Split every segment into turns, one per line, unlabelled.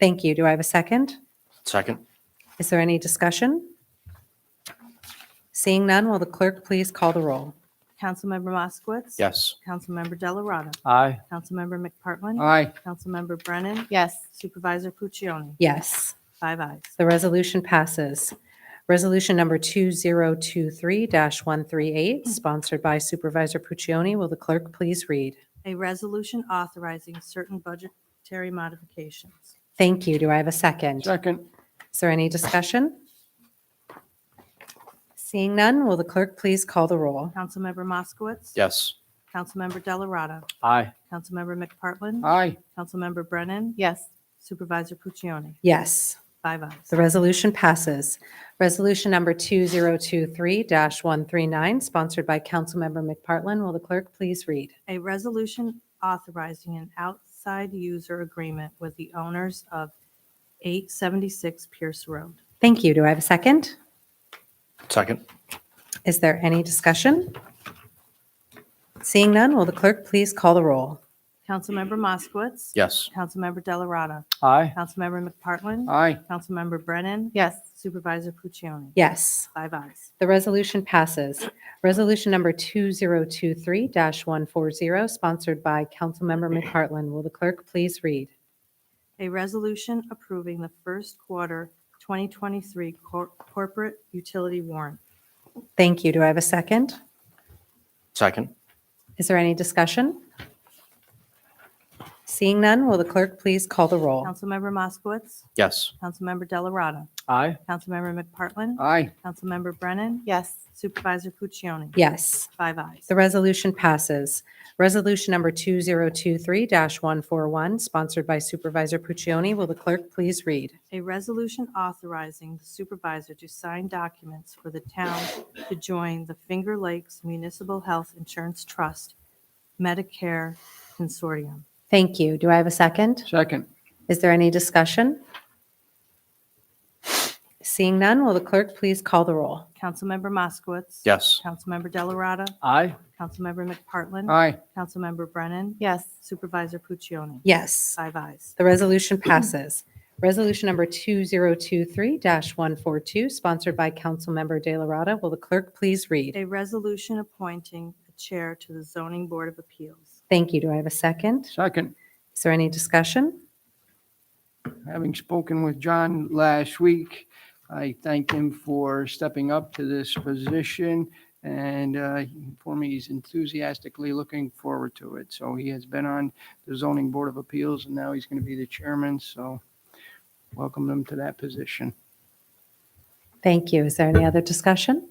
Thank you. Do I have a second?
Second.
Is there any discussion? Seeing none, will the clerk please call the roll?
Councilmember Moskowitz.
Yes.
Councilmember Delarada.
Aye.
Councilmember McPartlin.
Aye.
Councilmember Brennan.
yes,
Supervisor Puccioni.
Yes,
Five ayes.
the resolution passes. Resolution number 2023-138, sponsored by Supervisor Puccioni. Will the clerk please read?
A resolution authorizing certain budgetary modifications.
Thank you. Do I have a second?
Second.
Is there any discussion? Seeing none, will the clerk please call the roll?
Councilmember Moskowitz.
Yes.
Councilmember Delarada.
Aye.
Councilmember McPartlin.
Aye.
Councilmember Brennan.
yes,
Supervisor Puccioni.
Yes,
Five ayes.
The resolution passes. Resolution number 2023-139, sponsored by Councilmember McPartlin. Will the clerk please read?
A resolution authorizing an outside user agreement with the owners of 876 Pierce Road.
Thank you. Do I have a second?
Second.
Is there any discussion? Seeing none, will the clerk please call the roll?
Councilmember Moskowitz.
Yes.
Councilmember Delarada.
Aye.
Councilmember McPartlin.
Aye.
Councilmember Brennan.
yes,
Supervisor Puccioni.
Yes,
Five ayes.
the resolution passes. Resolution number 2023-140, sponsored by Councilmember McPartlin. Will the clerk please read?
A resolution approving the first quarter 2023 cor- corporate utility warrant.
Thank you. Do I have a second?
Second.
Is there any discussion? Seeing none, will the clerk please call the roll?
Councilmember Moskowitz.
Yes.
Councilmember Delarada.
Aye.
Councilmember McPartlin.
Aye.
Councilmember Brennan.
yes,
Supervisor Puccioni.
Yes,
Five ayes.
the resolution passes. Resolution number 2023-141, sponsored by Supervisor Puccioni. Will the clerk please read?
A resolution authorizing the supervisor to sign documents for the town to join the Finger Lakes Municipal Health Insurance Trust Medicare Consortium.
Thank you. Do I have a second?
Second.
Is there any discussion? Seeing none, will the clerk please call the roll?
Councilmember Moskowitz.
Yes.
Councilmember Delarada.
Aye.
Councilmember McPartlin.
Aye.
Councilmember Brennan.
yes,
Supervisor Puccioni.
Yes.
Five ayes.
The resolution passes. Resolution number 2023-142, sponsored by Councilmember De La Rada. Will the clerk please read?
A resolution appointing a chair to the Zoning Board of Appeals.
Thank you. Do I have a second?
Second.
Is there any discussion?
Having spoken with John last week, I thank him for stepping up to this position and uh, he informed me he's enthusiastically looking forward to it. So he has been on the zoning board of appeals and now he's going to be the chairman. So welcome him to that position.
Thank you. Is there any other discussion?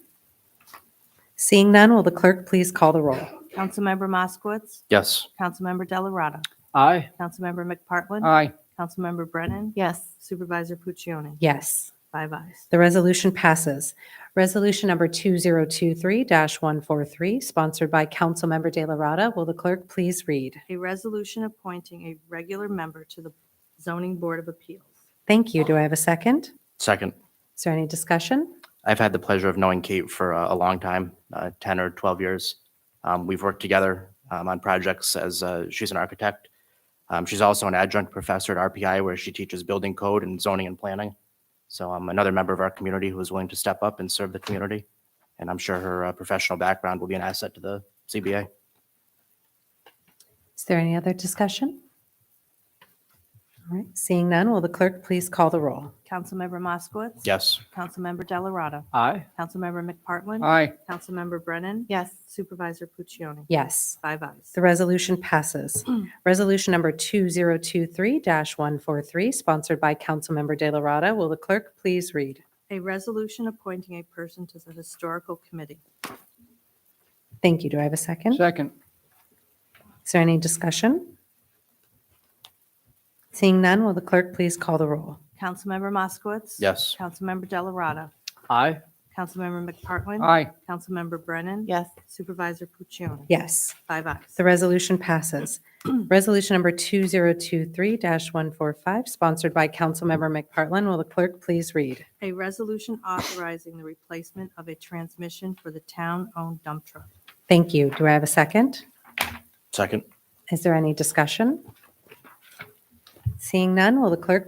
Seeing none, will the clerk please call the roll?
Councilmember Moskowitz.
Yes.
Councilmember Delarada.
Aye.
Councilmember McPartlin.
Aye.
Councilmember Brennan.
yes,
Supervisor Puccioni.
Yes.
Five ayes.
The resolution passes. Resolution number 2023-143, sponsored by Councilmember De La Rada. Will the clerk please read?
A resolution appointing a regular member to the Zoning Board of Appeals.
Thank you. Do I have a second?
Second.
Is there any discussion?
I've had the pleasure of knowing Kate for uh, a long time, uh, 10 or 12 years. Um, We've worked together um, on projects as, uh, she's an architect. Um, She's also an adjunct professor at RPI where she teaches building code and zoning and planning. So I'm another member of our community who is willing to step up and serve the community. And I'm sure her uh, professional background will be an asset to the CBA.
Is there any other discussion? All right, seeing none, will the clerk please call the roll?
Councilmember Moskowitz.
Yes.
Councilmember Delarada.
Aye.
Councilmember McPartlin.
Aye.
Councilmember Brennan.
yes,
Supervisor Puccioni.
Yes,
Five ayes.
the resolution passes. Resolution number 2023-143, sponsored by Councilmember De La Rada. Will the clerk please read?
A resolution appointing a person to the Historical Committee.
Thank you. Do I have a second?
Second.
Is there any discussion? Seeing none, will the clerk please call the roll?
Councilmember Moskowitz.
Yes.
Councilmember Delarada.
Aye.
Councilmember McPartlin.
Aye.
Councilmember Brennan.
yes,
Supervisor Puccioni.
Yes.
Five ayes.
The resolution passes. Resolution number 2023-145, sponsored by Councilmember McPartlin. Will the clerk please read?
A resolution authorizing the replacement of a transmission for the town-owned dump truck.
Thank you. Do I have a second?
Second.
Is there any discussion? Seeing none, will the clerk